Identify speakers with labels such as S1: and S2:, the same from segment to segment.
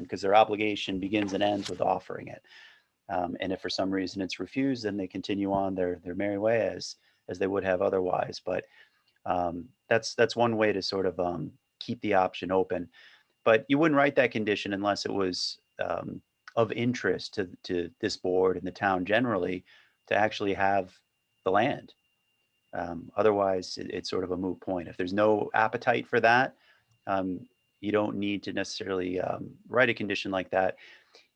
S1: because their obligation begins and ends with offering it. Um, and if for some reason it's refused, then they continue on their their merry way as as they would have otherwise. But um, that's that's one way to sort of um, keep the option open. But you wouldn't write that condition unless it was um, of interest to to this board and the town generally to actually have the land. Um, otherwise, it, it's sort of a moot point. If there's no appetite for that, um, you don't need to necessarily um, write a condition like that.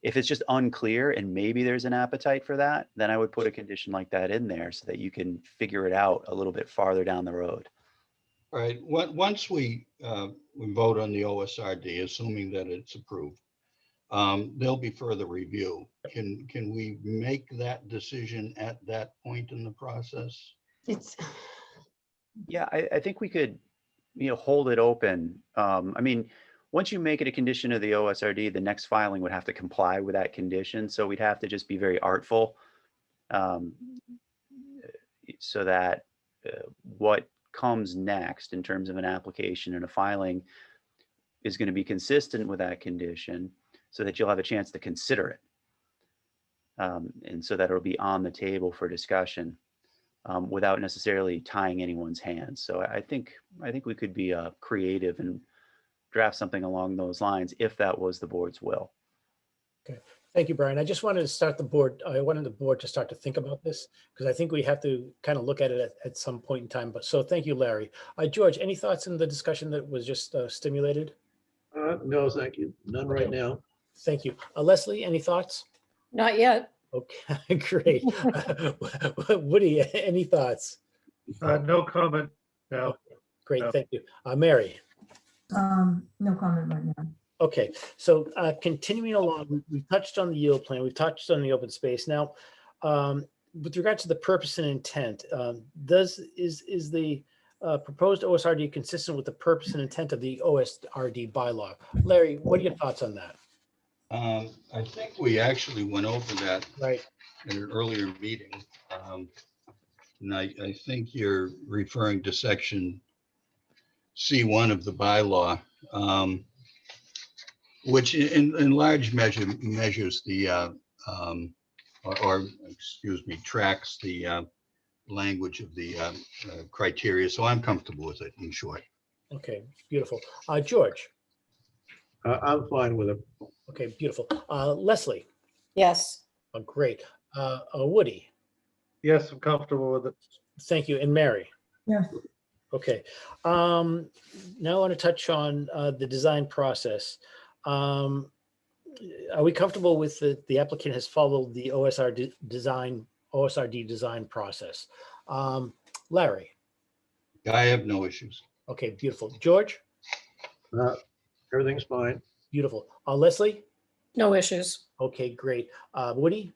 S1: If it's just unclear and maybe there's an appetite for that, then I would put a condition like that in there so that you can figure it out a little bit farther down the road.
S2: All right, on- once we, uh, we vote on the OSRD, assuming that it's approved, um, there'll be further review. Can, can we make that decision at that point in the process?
S3: It's,
S1: Yeah, I, I think we could, you know, hold it open. Um, I mean, once you make it a condition of the OSRD, the next filing would have to comply with that condition, so we'd have to just be very artful. um, So that uh, what comes next in terms of an application and a filing is going to be consistent with that condition, so that you'll have a chance to consider it. Um, And so that it'll be on the table for discussion um, without necessarily tying anyone's hands. So I I think, I think we could be uh, creative and draft something along those lines if that was the board's will.
S4: Thank you, Brian. I just wanted to start the board, I wanted the board to start to think about this because I think we have to kind of look at it at, at some point in time. But so thank you, Larry. Uh, George, any thoughts in the discussion that was just uh, stimulated?
S5: Uh, no, thank you. None right now.
S4: Thank you. Uh, Leslie, any thoughts?
S3: not yet.
S4: Okay, great. Woody, any thoughts?
S6: Uh, no comment now.
S4: Great,
S6: No.
S4: thank you. Uh, Mary?
S7: Um, no comment right now.
S4: Okay, so uh, continuing along, we- we've touched on the yield plan, we've touched on the open space. Now, um, with regard to the purpose and intent, um, does, is, is the uh, proposed OSRD consistent with the purpose and intent of the OSRD bylaw? Larry, what are your thoughts on that?
S2: Um, I think we actually went over that
S4: Right,
S2: in an earlier meeting. um, And I, I think you're referring to section C1 of the bylaw, um, which in, in large measure measures the, uh, um, or, or, excuse me, tracks the uh, language of the um, uh, criteria. So I'm comfortable with it in short.
S4: okay, beautiful. Uh, George,
S5: Uh, I'm fine with it.
S4: okay, beautiful. Uh, Leslie,
S3: Yes,
S4: oh, great. Uh, uh, Woody,
S6: Yes, I'm comfortable with it.
S4: thank you, and Mary?
S7: Yeah.
S4: Okay, um, now I want to touch on, uh, the design process. Um, are we comfortable with the, the applicant has followed the OSR de- design, OSRD design process? Um, Larry,
S2: I have no issues.
S4: okay, beautiful. George,
S5: Uh, everything's fine.
S4: beautiful. Uh, Leslie,
S3: no issues.
S4: okay, great. Uh, Woody,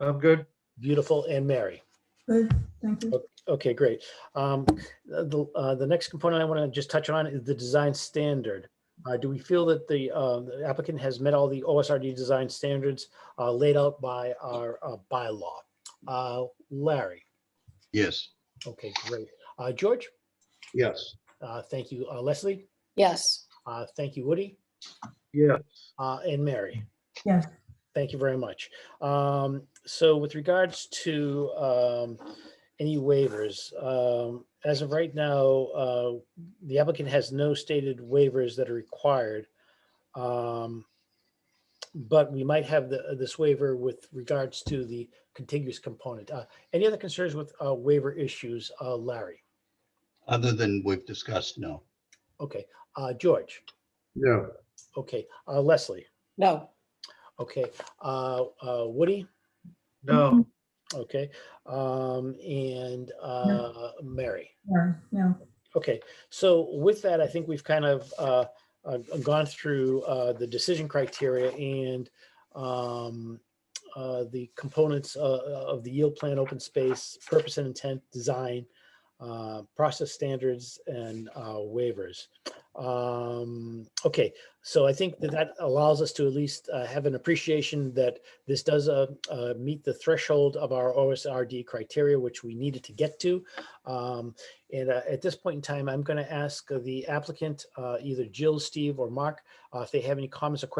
S6: I'm good.
S4: beautiful, and Mary.
S7: Good, thank you.
S4: Okay, great. Um, the, uh, the next component I want to just touch on is the design standard. Uh, do we feel that the, uh, the applicant has met all the OSRD design standards, uh, laid out by our, uh, bylaw? Uh, Larry?
S2: Yes.
S4: Okay, great. Uh, George?
S5: Yes.
S4: Uh, thank you. Uh, Leslie?
S3: Yes,
S4: Uh, thank you, Woody?
S6: Yes.
S4: Uh, and Mary?
S7: Yes.
S4: Thank you very much. Um, so with regards to, um, any waivers, um, as of right now, uh, the applicant has no stated waivers that are required. Um, but we might have the, this waiver with regards to the contiguous component. Uh, any other concerns with, uh, waiver issues, uh, Larry?
S2: Other than we've discussed, no.
S4: Okay, uh, George?
S5: No.
S4: Okay, uh, Leslie.
S3: no,
S4: Okay, uh, uh, Woody.
S6: No.
S4: Okay, um, and uh, Mary.
S7: Yeah, yeah.
S4: Okay, so with that, I think we've kind of uh, uh, gone through uh, the decision criteria and um, uh, the components uh, of the yield plan, open space, purpose and intent, design, uh, process standards, and uh, waivers. Um, Okay, so I think that that allows us to at least uh, have an appreciation that this does uh, uh, meet the threshold of our OSRD criteria, which we needed to get to. Um, and uh, at this point in time, I'm going to ask uh, the applicant, uh, either Jill, Steve, or Mark, uh, if they have any comments or questions